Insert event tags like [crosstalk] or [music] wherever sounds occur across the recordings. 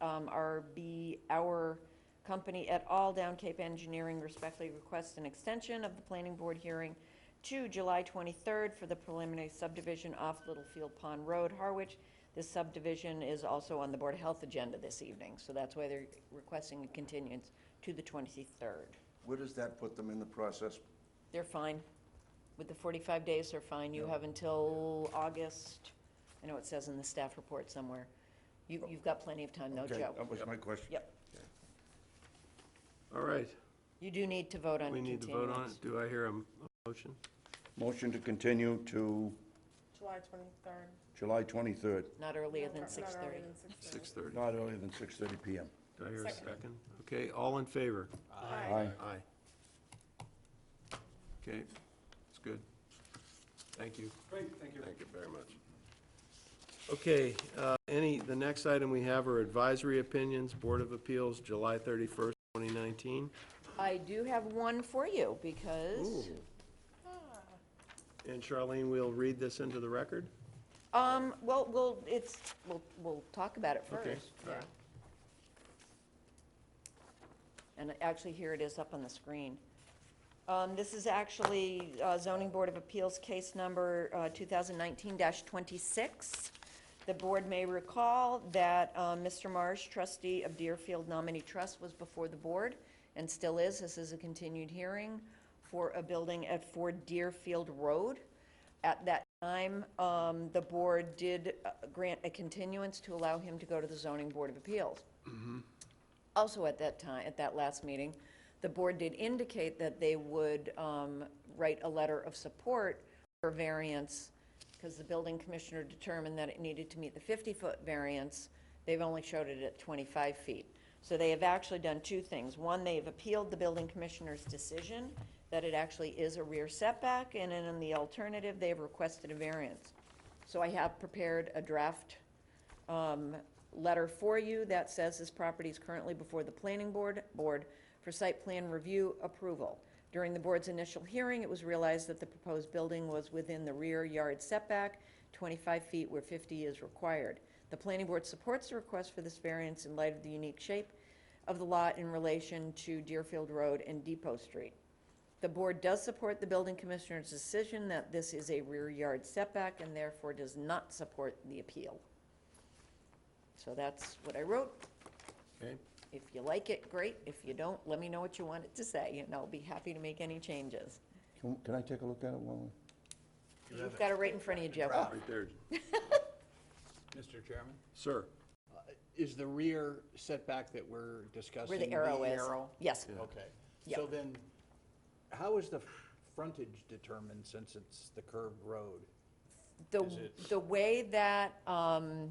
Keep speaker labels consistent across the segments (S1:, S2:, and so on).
S1: um, RB, our company et al., Down Cape Engineering respectfully requests an extension of the planning board hearing to July 23rd for the preliminary subdivision off Littlefield Pond Road, Harwich. This subdivision is also on the Board of Health agenda this evening, so that's why they're requesting a continuance to the 23rd.
S2: Where does that put them in the process?
S1: They're fine. With the 45 days, they're fine. You have until August, I know it says in the staff report somewhere. You- You've got plenty of time, though,
S2: Okay,
S1: Joe.
S2: That was my question.
S1: Yep.
S3: All right,
S1: You do need to vote on
S3: we need
S1: continuance.
S3: to vote on it. Do I hear a m- a motion?
S2: Motion to continue to
S4: July twenty-third.
S2: July 23rd,
S1: Not earlier than 6:30.
S3: 6:30.
S2: not earlier than 6:30 PM.
S3: Do I hear a
S4: Second.
S3: second? Okay, all in favor?
S2: Aye.
S3: Aye. Okay, it's good. Thank you. Great, thank you. Thank you very much. Okay, uh, any, the next item we have are advisory opinions, Board of Appeals, July 31st, 2019.
S1: I do have one for you, because,
S3: And Charlene, we'll read this into the record?
S1: um, well, we'll, it's, we'll, we'll talk about it
S3: Okay,
S1: first.
S3: all right.
S1: And actually, here it is up on the screen. Um, This is actually uh, zoning board of appeals case number uh, 2019-26. The board may recall that uh, Mr. Marsh, trustee of Deerfield Nominee Trust, was before the board and still is. This is a continued hearing for a building at 4 Deerfield Road. At that time, um, the board did uh, grant a continuance to allow him to go to the zoning board of appeals. Also, at that time, at that last meeting, the board did indicate that they would um, write a letter of support for variance, because the building commissioner determined that it needed to meet the 50-foot variance. They've only showed it at 25 feet. So they have actually done two things. One, they've appealed the building commissioner's decision that it actually is a rear setback, and then in the alternative, they have requested a variance. So I have prepared a draft um, letter for you that says this property is currently before the planning board, board for site plan review approval. During the board's initial hearing, it was realized that the proposed building was within the rear yard setback, 25 feet where 50 is required. The planning board supports the request for this variance in light of the unique shape of the lot in relation to Deerfield Road and Depot Street. The board does support the building commissioner's decision that this is a rear yard setback and therefore does not support the appeal. So that's what I wrote.
S3: Okay,
S1: If you like it, great. If you don't, let me know what you want it to say, and I'll be happy to make any changes.
S2: Can can I take a look at it while we?
S1: You've got it right in front of you, Joe.
S3: right there,
S5: Mr. Chairman?
S3: sir.
S5: Is the rear setback that we're discussing?
S1: Where the arrow is.
S5: arrow?
S1: Yes.
S5: Okay.
S1: Yeah.
S5: So then, how is the frontage determined since it's the curved road?
S1: The,
S5: Is it-
S1: the way that um,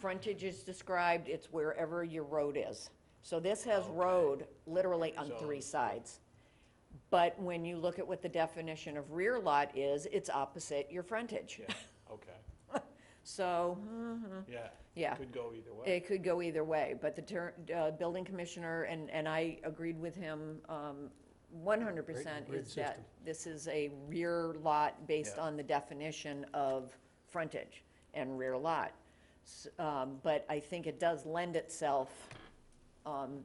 S1: frontage is described, it's wherever your road is. So this has
S5: Okay.
S1: road literally on
S5: So-
S1: three sides. But when you look at what the definition of rear lot is, it's opposite your frontage. [laughs]
S5: Yeah, okay,
S1: So, hmm.
S5: yeah.
S1: Yeah.
S5: Could go either way.
S1: It could go either way, but the ter, uh, building commissioner, and, and I agreed with him, um, one hundred percent is that this is a rear lot based
S5: Yeah.
S1: on the definition of frontage and rear lot. S- Um, but I think it does lend itself, um,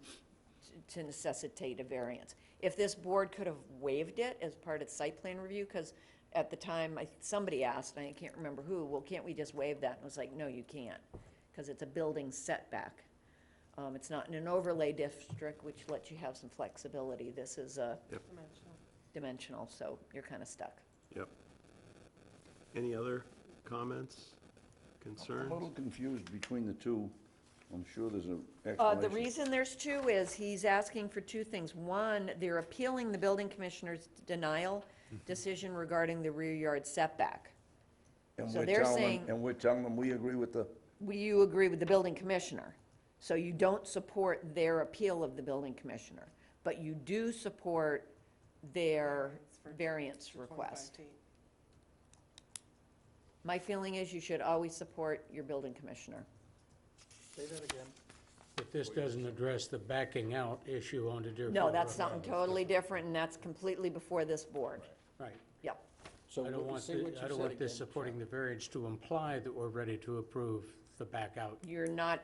S1: t- to necessitate a variance. If this board could have waived it as part of site plan review, because at the time, I- somebody asked, and I can't remember who, well, can't we just waive that? And I was like, no, you can't, because it's a building setback. Um, It's not in an overlay district, which lets you have some flexibility. This is a dimensional, so you're kind of stuck.
S3: Yep. Any other comments,
S2: I'm
S3: concerns?
S2: a little confused between the two. I'm sure there's
S1: Uh,
S2: an
S1: The
S2: explanation.
S1: reason there's two is he's asking for two things. One, they're appealing the building commissioner's denial decision regarding the rear yard setback.
S2: And
S1: so
S2: we're
S1: they're
S2: telling-
S1: saying-
S2: And we're telling them, we agree with the,
S1: We- You agree with the building commissioner, so you don't support their appeal of the building commissioner, but you do support their variance request. My feeling is you should always support your building commissioner.
S5: Say that again.
S6: But this doesn't address the backing out issue on the Deerfield.
S1: No, that's
S6: Road.
S1: something totally different, and that's completely before this board.
S6: Right.
S1: Yep.
S5: So
S6: I don't want,
S5: say
S6: the-
S5: what you
S6: I don't
S5: said
S6: want this
S5: again.
S6: supporting the variance to imply that we're ready to approve the back out.
S1: You're not